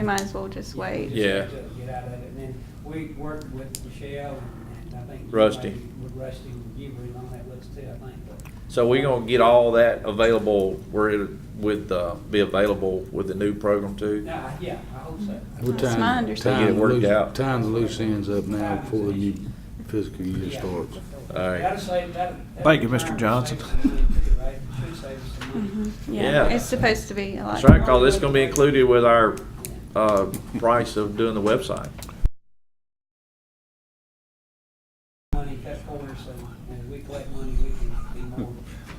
We might as well just wait. Yeah. to Get out of it, and then we worked with Michelle, and I think. Rusty. With Rusty, you were on that list too, I think, but. So we're gonna get all that available, where it would, uh, be available with the new program too? No, I- yeah, I hope so. We're That's my understanding. Get it worked loose- out. Tying the loose ends up now before the new fiscal year Yeah. starts. All right. That'll save- that'll- that'll Thank you, save Mr. some Johnson. money too, right? Should save us some money. Mhm. Yeah. Yeah, it's supposed to be like. That's right, cause it's gonna be included with our, uh, price of doing the website. Money cut corners, so as we collect money, we can be more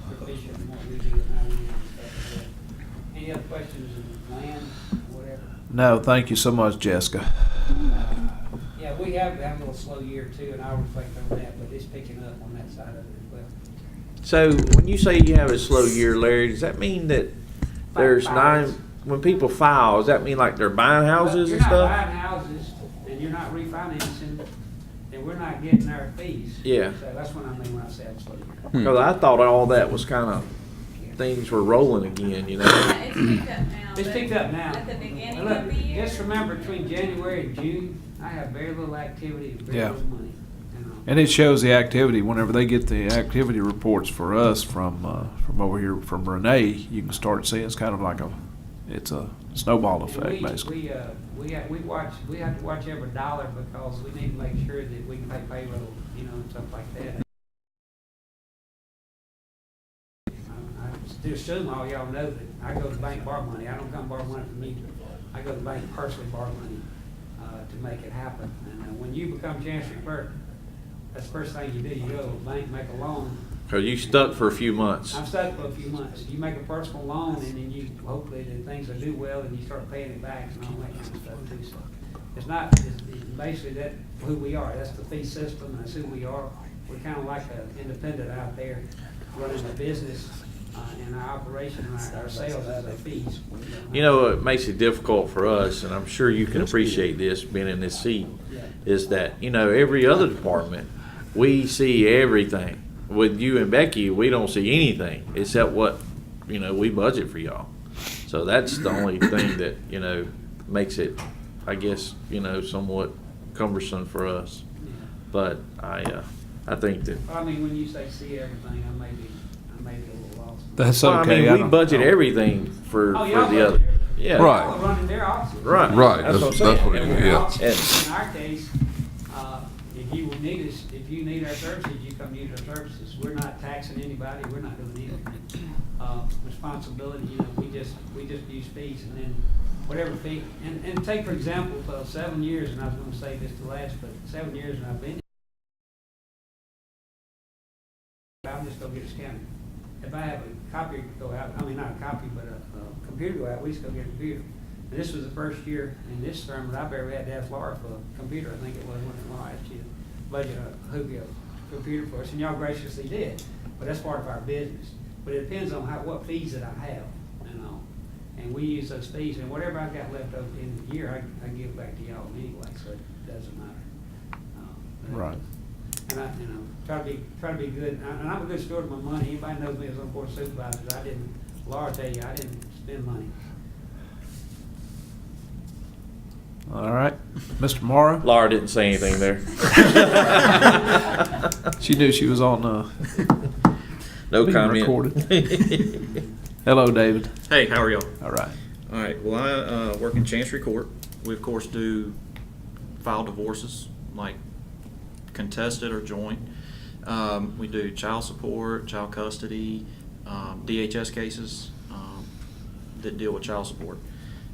proficient in what we do and how we do stuff. But Any other questions on land, whatever? No, thank you so much, Jessica. Yeah, we have, have a little slow year too, and I'll reflect on that, but it's picking up on that side of it as well. So when you say you have a slow year, Larry, does that mean that there's nine, Filings. when people file, does that mean like they're buying houses and If You're not stuff? buying houses, and you're not refinancing, then we're not getting our fees. Yeah. So that's what I mean when I say it's slow year. Cause I thought all that was kinda, things were rolling again, you know? It's picked up now. but It's picked up now. At the beginning And look, of the year. Just remember, between January and June, I have very little activity and very Yeah. little money. um, you know. And it shows the activity, whenever they get the activity reports for us from, uh, from over here, from Renee, you can start seeing it's kind of like a, it's a snowball And effect, we- basically. We, uh, we have, we watch, we have to watch every dollar because we need to make sure that we can pay payroll, you know, and stuff like that. uh, I I still assume all y'all know that I go to the bank borrow money. I don't come borrow money from you. I go to the bank personally borrow money, uh, to make it happen. And uh, when you become chancery clerk, that's the first thing you do. You go to the bank, make a loan, Cause you stuck for a few months. I've stuck for a few months. You make a personal loan and then you, hopefully, the things will do well and you start paying it back and all that kind of stuff too. So It's not, it's it's basically that, who we are. That's the fee system. That's who we are. We're kind of like an independent out there running a business uh, and our operation, our our sales is our fees. You know, it makes it difficult for us, and I'm sure you can appreciate this, being in this seat, is that, you know, every other department, we see everything. With you and Becky, we don't see anything except what, you know, we budget for y'all. So that's the only thing that, you know, makes it, I guess, you know, somewhat cumbersome for us. Yeah. But I, uh, I think that, But I mean, when you say see everything, I may be, I may be a little lost. That's well, I okay. mean, we don't- budget everything for, Oh, for y'all the other. budget everything. Yeah. Right. Y'all are running their offices. Right. Right, That's that's, what that's I'm what, it saying. And is, we're yeah. also, In our case, uh, if you need us, if you need our services, you come use our services. We're not taxing anybody, we're not doing anything. Uh, Responsibility, you know, we just, we just use fees and then whatever fee. And, and take for example, uh, seven years, and I was gonna say this the last, but seven years and I've been I'm just gonna get a scanner. If I have a copy go out, I mean, not a copy, but a, a computer go out, we just go get a computer. And this was the first year in this term that I've ever had to ask Laura for a computer, I think it was when it last year. Budget a Hoovy a computer for us, and y'all graciously did, but that's part of our business. But it depends on how, what fees that I have and all. And we use those fees, and whatever I've got left over in the year, I, I give back to y'all anyway, so it doesn't matter. Um, but- Right. and I, you know, try to be, try to be good, and I- and I'm a good steward of my money, anybody knows me as a board supervisor, I didn't, Laura tell you, I didn't spend money. All right. Mr. Morrow, Laura didn't say anything there. she knew she was on, uh, No Being comment. recorded. hello, David. Hey, how are y'all? All right. All right, well, I uh, work in Chancery Court. We, of course, do file divorces, like contested or joint. Um, We do child support, child custody, um, DHS cases um, that deal with child support.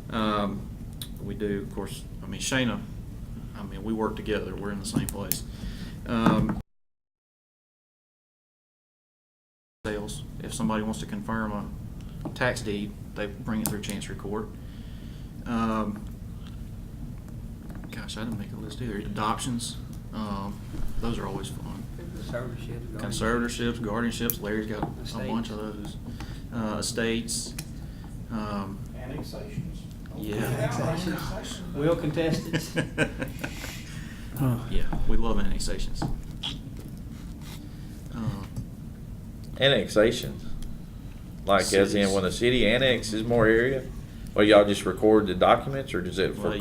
Um, We do, of course, I mean, Shayna, I mean, we work together, we're in the same place. Um, Sales, if somebody wants to confirm a tax deed, they bring it through Chancery Court. Um, Gosh, I didn't make a list either. Adoptions, um, those are always fun. Conservatorship. Conservatorships, guardianships, Larry's got a bunch of those. Uh, estates, um, Annexations. yeah. Will contest it. Huh. Yeah, we love annexations. Um, Annexation, like as in when a city annexes more area, Well, y'all just record the documents or does it for Well,